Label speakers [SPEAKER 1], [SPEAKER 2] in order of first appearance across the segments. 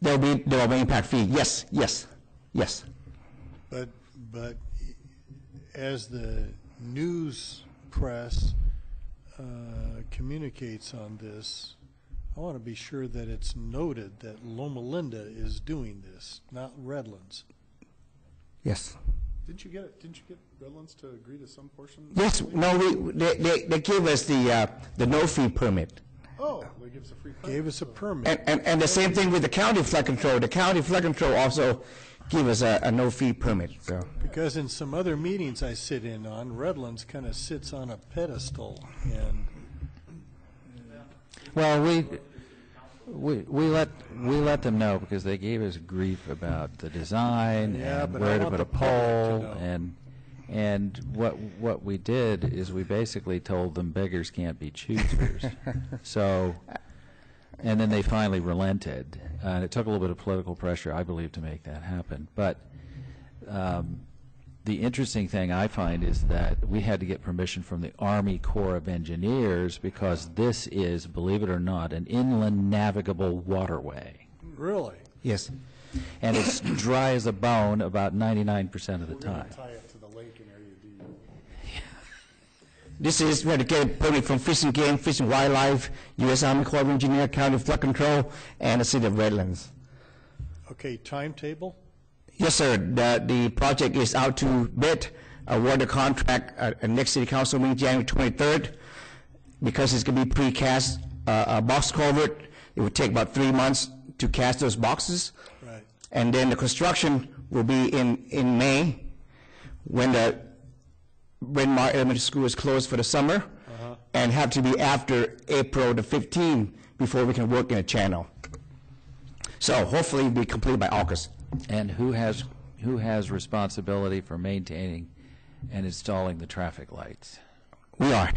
[SPEAKER 1] There will be, there will be impact fee, yes, yes, yes.
[SPEAKER 2] But, but as the news press uh, communicates on this, I want to be sure that it's noted that Loma Linda is doing this, not Redlands.
[SPEAKER 1] Yes.
[SPEAKER 3] Didn't you get, didn't you get Redlands to agree to some portion?
[SPEAKER 1] Yes, no, we, they, they, they gave us the, uh, the no-fee permit.
[SPEAKER 3] Oh, they give us a free permit.
[SPEAKER 2] Gave us a permit.
[SPEAKER 1] And, and, and the same thing with the county flood control. The county flood control also gave us a, a no-fee permit, so.
[SPEAKER 2] Because in some other meetings I sit in on, Redlands kind of sits on a pedestal, and
[SPEAKER 4] Well, we, we, we let, we let them know because they gave us grief about the design
[SPEAKER 2] Yeah,
[SPEAKER 4] and
[SPEAKER 2] but I
[SPEAKER 4] where to
[SPEAKER 2] want
[SPEAKER 4] put a
[SPEAKER 2] the public to
[SPEAKER 4] pole
[SPEAKER 2] know.
[SPEAKER 4] and, and what, what we did is we basically told them beggars can't be choosers. So, and then they finally relented. Uh, And it took a little bit of political pressure, I believe, to make that happen. But, um, the interesting thing I find is that we had to get permission from the Army Corps of Engineers because this is, believe it or not, an inland navigable waterway.
[SPEAKER 2] really,
[SPEAKER 1] Yes.
[SPEAKER 4] And it's dry as a bone about 99% of the time.
[SPEAKER 3] Tie it to the lake in Area D.
[SPEAKER 1] This is where to get a permit from Fish and Game, Fish and Wildlife, U.S. Army Corps of Engineer, County Flood Control, and the City of Redlands.
[SPEAKER 2] okay, timetable?
[SPEAKER 1] Yes, sir. The, the project is out to bid, award the contract at, at next city council meeting, January 23rd. Because it's gonna be precast, uh, uh, box culvert, it would take about three months to cast those boxes.
[SPEAKER 2] Right.
[SPEAKER 1] And then the construction will be in, in May, when the Bryn Mawr Elementary School is closed for the summer, and have to be after April the 15th before we can work in a channel. So hopefully be completed by August.
[SPEAKER 4] And who has, who has responsibility for maintaining and installing the traffic lights?
[SPEAKER 1] We are.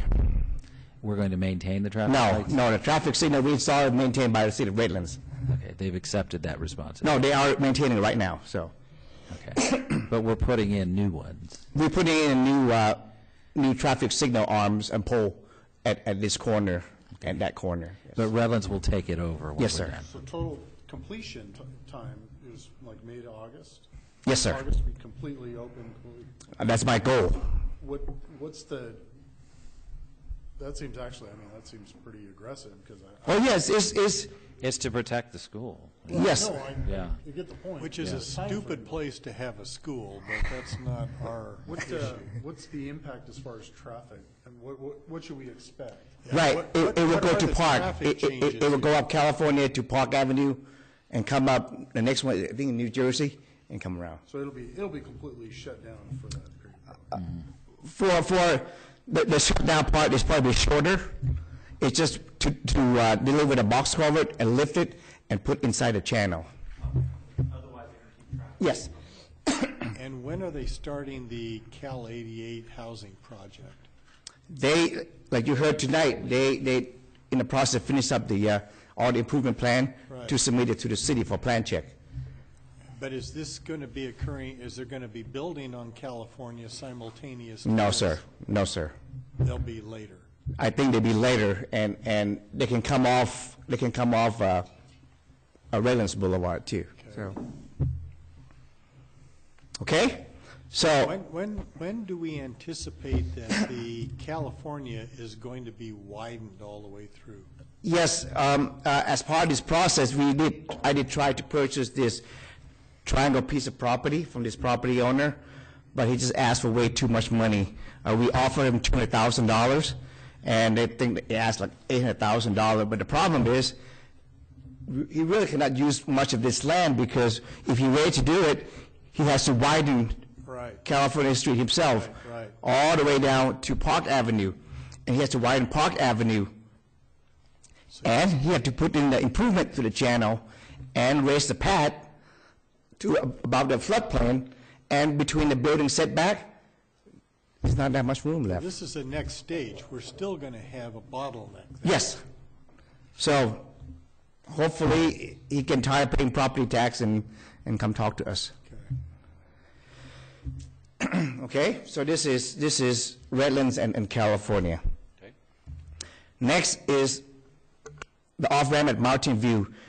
[SPEAKER 4] We're going to maintain the traffic
[SPEAKER 1] No,
[SPEAKER 4] lights?
[SPEAKER 1] no, the traffic signal we saw is maintained by the city of Redlands.
[SPEAKER 4] Okay, they've accepted that
[SPEAKER 1] No,
[SPEAKER 4] responsibility.
[SPEAKER 1] they are maintaining it right now, so.
[SPEAKER 4] Okay. But we're putting in new ones.
[SPEAKER 1] We're putting in new, uh, new traffic signal arms and pole at, at this corner, and that corner.
[SPEAKER 4] But Redlands will take it over when we're done.
[SPEAKER 1] Yes, sir.
[SPEAKER 3] So total completion t- time is like May to August?
[SPEAKER 1] Yes, sir.
[SPEAKER 3] August be completely open, completely,
[SPEAKER 1] And That's my goal.
[SPEAKER 3] what, what's the, that seems actually, I mean, that seems pretty aggressive, because I.
[SPEAKER 1] Oh, yes, it's, it's,
[SPEAKER 4] It's to protect the school.
[SPEAKER 1] yes.
[SPEAKER 3] No, I,
[SPEAKER 4] Yeah.
[SPEAKER 3] you get the point.
[SPEAKER 2] Which is a stupid place to have a school, but that's not our
[SPEAKER 3] What's
[SPEAKER 2] issue.
[SPEAKER 3] the, uh, what's the impact as far as traffic, and what, what, what should we expect?
[SPEAKER 1] Right,
[SPEAKER 2] What-
[SPEAKER 1] it,
[SPEAKER 2] what-
[SPEAKER 1] it will
[SPEAKER 2] what
[SPEAKER 1] go
[SPEAKER 2] are
[SPEAKER 1] to
[SPEAKER 2] the
[SPEAKER 1] Park. It,
[SPEAKER 2] traffic
[SPEAKER 1] it- it, it
[SPEAKER 2] changes
[SPEAKER 1] will go up California to Park Avenue and come up, the next one, I think in New Jersey, and come around.
[SPEAKER 3] So it'll be, it'll be completely shut down for that period.
[SPEAKER 1] for, for, the, the shutdown part is probably shorter. It's just to, to uh, deliver the box culvert and lift it and put inside the channel. Yes.
[SPEAKER 2] And when are they starting the Cal 88 housing project?
[SPEAKER 1] They, like you heard tonight, they, they, in the process, finish up the, uh, all the improvement plan to
[SPEAKER 2] Right.
[SPEAKER 1] submit it to the city for plan check.
[SPEAKER 2] But is this going to be occurring, is there going to be building on California simultaneously?
[SPEAKER 1] No, sir. No, sir.
[SPEAKER 2] They'll be later.
[SPEAKER 1] I think they'd be later, and, and they can come off, they can come off, uh, uh, Redlands Boulevard too, so. Okay? So,
[SPEAKER 2] When, when, when do we anticipate that the California is going to be widened all the way through?
[SPEAKER 1] yes, um, uh, as part of this process, we did, I did try to purchase this triangle piece of property from this property owner, but he just asked for way too much money. Uh, we offered him two hundred thousand dollars, and they think, that he asked like eight hundred thousand dollars, but the problem is, he really cannot use much of this land because if he were to do it, he has to widen
[SPEAKER 2] Right.
[SPEAKER 1] California Street himself.
[SPEAKER 2] Right, right.
[SPEAKER 1] All the way down to Park Avenue. And he has to widen Park Avenue. And he had to put in the improvement to the channel and raise the pad to ab- above the floodplain. And between the building setback, there's not that much room left.
[SPEAKER 2] This is the next stage. We're still going to have a bottleneck.
[SPEAKER 1] Yes. So hopefully, he can tire paying property tax and, and come talk to us. Okay? So this is, this is Redlands and, and California. Next is the off-ramp at Mountain View.